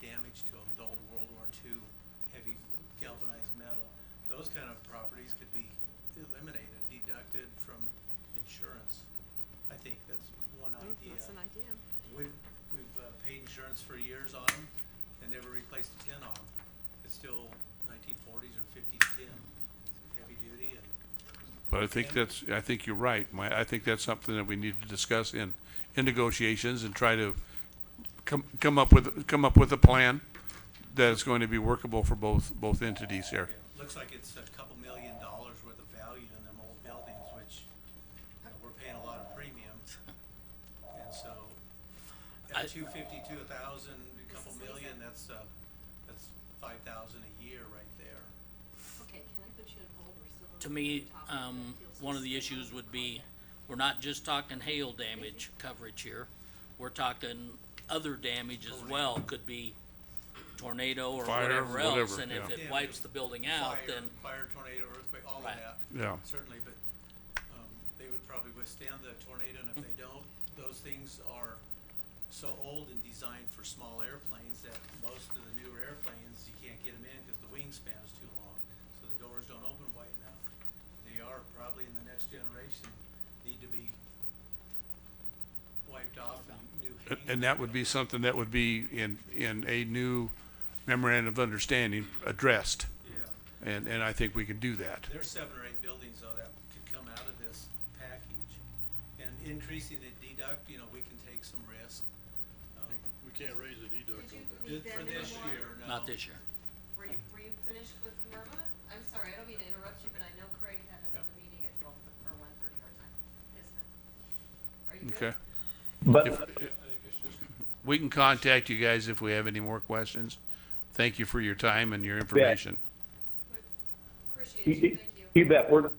damage to them, the old World War II heavy galvanized metal. Those kind of properties could be eliminated, deducted from insurance. I think that's one Mm, idea. That's an idea. We've, we've uh, paid insurance for years on them and never replaced a tin on them. It's still nineteen forties or fifties tin, heavy duty and But I think Okay. that's, I think you're right. My, I think that's something that we need to discuss in, in negotiations and try to come, come up with, come up with a plan that is going to be workable for both, both entities here. Yeah, looks like it's a couple million dollars worth of value in them old buildings, which, you know, we're paying a lot of premiums. And so, I- at two fifty, two thousand, a couple million, that's, uh, that's five thousand a year right there. Okay, can I put you on hold? We're still on To me, the topic that um, feels one of the so issues would be, complicated. we're not just talking hail damage coverage here. We're talking other damage as well, could be tornado or Fire, whatever else, whatever, and if yeah. it Yeah. wipes the building out, Fire- then, Fire, tornado, earthquake, all of Right. that. Yeah. Certainly, but, um, they would probably withstand the tornado, and if they don't, those things are so old and designed for small airplanes that most of the newer airplanes, you can't get them in because the wingspan is too long, so the doors don't open wide enough. They are probably in the next generation, need to be wiped off and new And- hangars. And that would be something that would be in, in a new memorandum of understanding addressed. Yeah. And, and I think we can do that. There's seven or eight buildings though that could come out of this package. And increasing the deduct, you know, we can take some risk. um, We can't raise the deduct on that. Did th- you For then this move on? year, no. not this year. Were you, were you finished with Myrma? I'm sorry, I don't mean to interrupt you, but I know Craig had another meeting at twelve, or one thirty our time, his time. Are you Okay. good? If- We can contact you guys if we have any more questions. Thank you for your time and your information. Appreciate You- you, you- thank you. You bet. We're,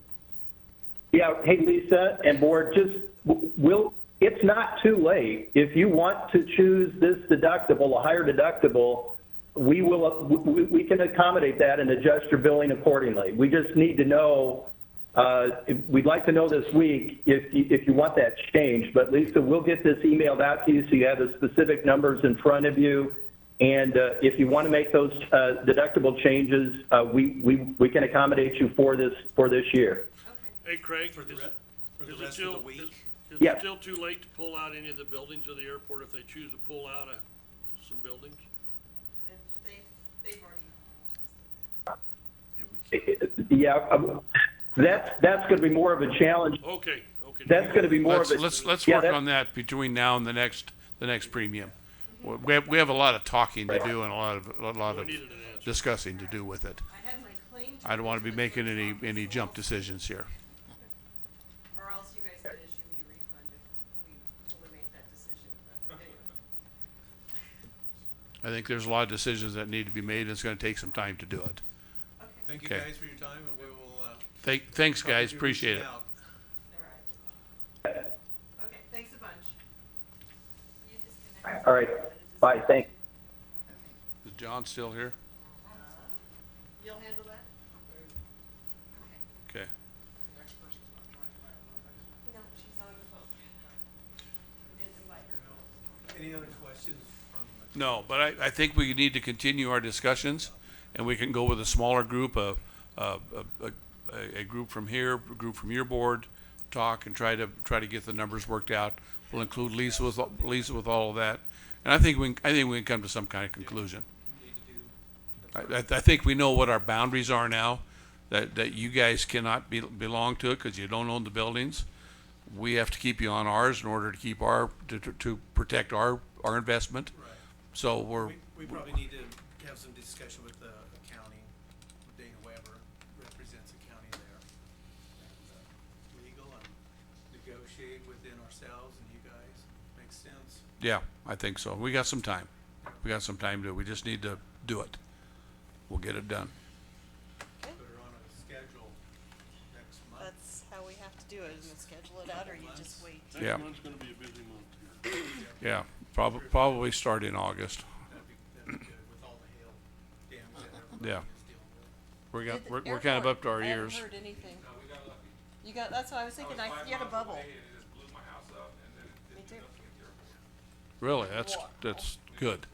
yeah, hey, Lisa and board, just, w- we'll, it's not too late. If you want to choose this deductible, a higher deductible, we will, uh, w- we, we can accommodate that and adjust your billing accordingly. We just need to know, uh, if- we'd like to know this week if, you- if you want that changed. But Lisa, we'll get this emailed out to you so you have the specific numbers in front of you. And uh, if you want to make those uh, deductible changes, uh, we, we, we can accommodate you for this, for this year. Okay. Hey, Craig, For the is- re- for the is it rest of still- the week? is- Is Yeah. it still too late to pull out any of the buildings of the airport if they choose to pull out of some buildings? And they, they've already, Yeah, um, that's, that's going to be more of a challenge. Okay, okay. That's going to be more of Let's, a. let's, let's yeah, work that- on that between now and the next, the next premium. We- We have, we have a lot of talking to do and a lot of, a lot We of needed an answer. discussing to do with it. I had my claim. I don't want to be the making clerk's any, office, any so jump I'll- decisions here. Or else you guys could issue me a refund if we totally make that decision, but anyway. I think there's a lot of decisions that need to be made, and it's gonna take some time to do it. Okay, Thank you Okay. guys for your time and we will, uh. Thank, thanks, probably guys, be reaching appreciate it. out. all right. Okay, thanks a bunch. You disconnected. All right, bye, thanks. Is John still here? You'll handle that? Okay. Okay. No, she's on the phone. We didn't invite her. Any other questions from uh, the No, but I, I think we need to continue our discussions, and we can go with a smaller group, a, a, a, a, a group from here, a group from your board, talk and try to, try to get the numbers worked out. We'll include Lisa with, Lisa with all of that, and I think we, can- I think we can come to some kind of conclusion. need to do? I, I, I think we know what our boundaries are now, that, that you guys cannot be, belong to it, cause you don't own the buildings. We have to keep you on ours in order to keep our, to, to- to protect our, our investment. Right. So we're, We, we probably need to have some discussion with the accounting. Dana Weber represents the county there. And, uh, Legal and negotiate within ourselves and you guys. Makes sense. yeah, I think so. We got some time. We got some time to, we just need to do it. We'll get it done. Put her on a schedule next month. That's how we have to do it, is schedule it out or you just wait. Yeah. Next month's gonna be a busy month here. Yeah, probably, probably start in August. That'd be, that'd be good with all the hail damage that Yeah. everybody is dealing with. We're Did got, the we're, we're kind of airport- up to our I haven't ears. heard anything. You got, that's what I was thinking, I, you had a bubble. Really, that's, that's good.